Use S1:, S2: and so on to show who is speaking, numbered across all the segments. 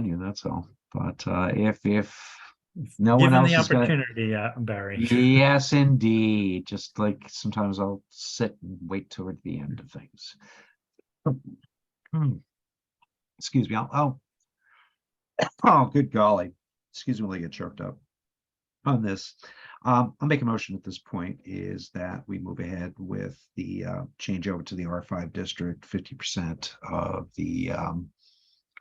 S1: that's all. But uh, if if if no one
S2: Given
S1: else
S2: the
S1: is gonna,
S2: opportunity, uh, Barry.
S1: yes, indeed. Just like sometimes I'll sit and wait toward the end of things. Hmm. Excuse me. I'll, I'll. Oh, good golly. Excuse me, while I get choked up. On this, um, I'll make a motion at this point is that we move ahead with the uh, change over to the R five district, fifty percent of the um.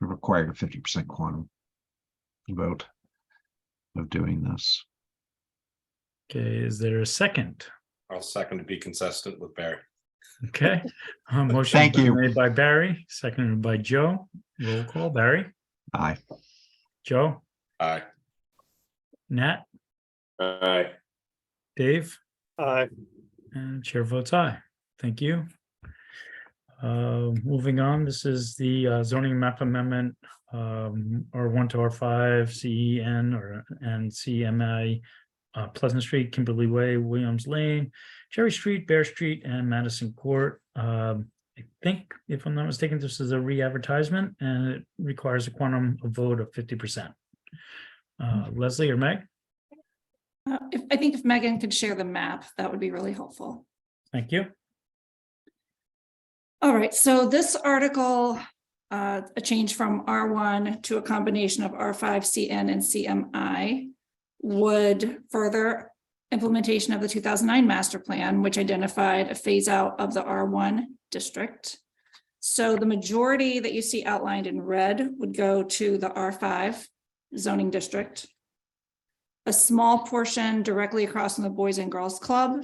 S1: Required fifty percent quantum. Vote. Of doing this.
S2: Okay, is there a second?
S3: I'll second to be consistent with Barry.
S2: Okay. Uh, motion
S1: Thank
S2: been
S1: you.
S2: Made by Barry, seconded by Joe. Roll call, Barry,
S1: Aye.
S2: Joe,
S3: Aye.
S2: Nat,
S3: Aye.
S2: Dave,
S4: Aye.
S2: and chair votes aye. Thank you. Uh, moving on, this is the uh, zoning map amendment, um, R one to R five, CEN or, and CMI. Uh, Pleasant Street, Kimberly Way, Williams Lane, Cherry Street, Bear Street, and Madison Court. Um, I think, if I'm not mistaken, this is a re-advertisement and it requires a quantum of vote of fifty percent. Uh, Leslie or Meg?
S5: Uh, If, I think if Megan could share the map, that would be really helpful.
S2: Thank you.
S5: All right, so this article, uh, a change from R1 to a combination of R5, CN, and CMI would further implementation of the 2009 master plan, which identified a phase out of the R1 district. So the majority that you see outlined in red would go to the R5 zoning district. A small portion directly across from the Boys and Girls Club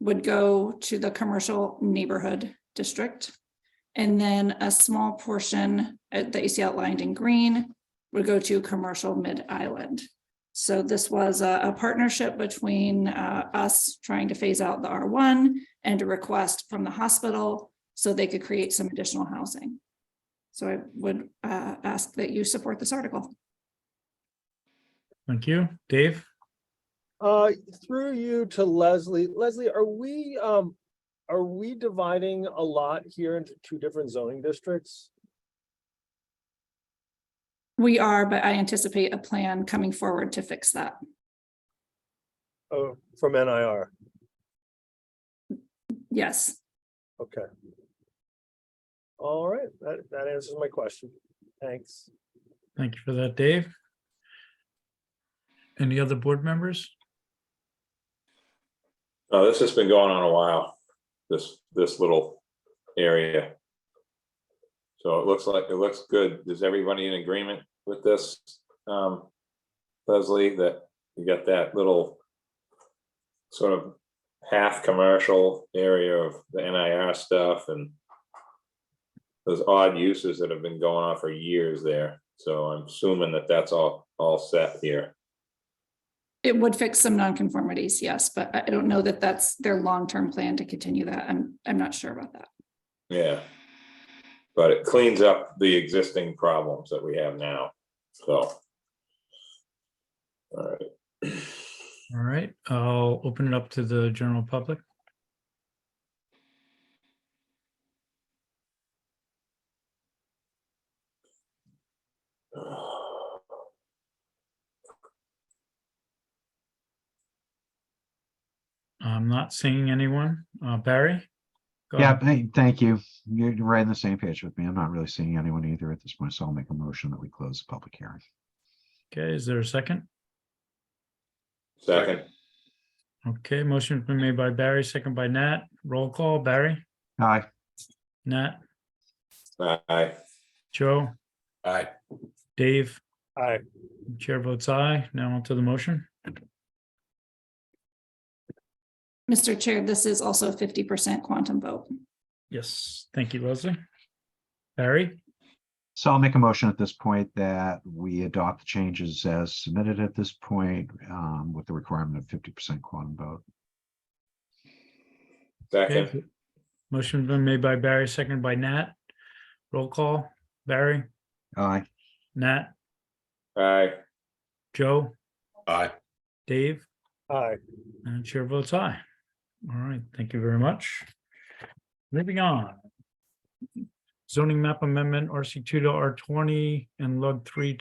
S5: would go to the commercial neighborhood district. And then a small portion uh, that you see outlined in green would go to commercial mid-island. So this was a, a partnership between uh, us trying to phase out the R1 and a request from the hospital so they could create some additional housing. So I would uh, ask that you support this article.
S2: Thank you. Dave?
S4: Uh, through you to Leslie. Leslie, are we, um, are we dividing a lot here into two different zoning districts?
S5: We are, but I anticipate a plan coming forward to fix that.
S4: Oh, from NIR,
S5: Yes.
S4: okay. All right, that, that answers my question. Thanks.
S2: Thank you for that, Dave. Any other board members?
S6: Oh, this has been going on a while, this, this little area. So it looks like, it looks good. Is everybody in agreement with this? Um, Leslie, that you got that little sort of half commercial area of the NIR stuff and those odd uses that have been going on for years there. So I'm assuming that that's all, all set here.
S5: It would fix some nonconformities, yes, but I I don't know that that's their long-term plan to continue that. I'm, I'm not sure about that.
S6: Yeah. But it cleans up the existing problems that we have now, so. All right.
S2: All right, I'll open it up to the general public. I'm not seeing anyone. Uh, Barry? Go
S1: Yeah,
S2: ahead.
S1: hey, thank you. You're you're right on the same page with me. I'm not really seeing anyone either at this point, so I'll make a motion that we close the public hearing.
S2: Okay, is there a second?
S6: Second,
S2: Okay, motion has been made by Barry, second by Nat. Roll call, Barry,
S1: Aye,
S2: Nat,
S6: aye,
S2: Joe,
S3: Aye.
S2: Dave,
S4: Aye.
S2: chair votes aye. Now onto the motion.
S5: Mr. Chair, this is also a fifty percent quantum vote.
S2: Yes, thank you, Leslie. Barry,
S1: so I'll make a motion at this point that we adopt the changes as submitted at this point, um, with the requirement of fifty percent quantum vote.
S6: second,
S2: motion has been made by Barry, second by Nat. Roll call, Barry,
S1: Aye,
S2: Nat,
S6: aye,
S2: Joe,
S3: Aye.
S2: Dave,
S4: Aye.
S2: and chair votes aye. All right, thank you very much. Moving on. Zoning map amendment, RC two to R twenty and lug three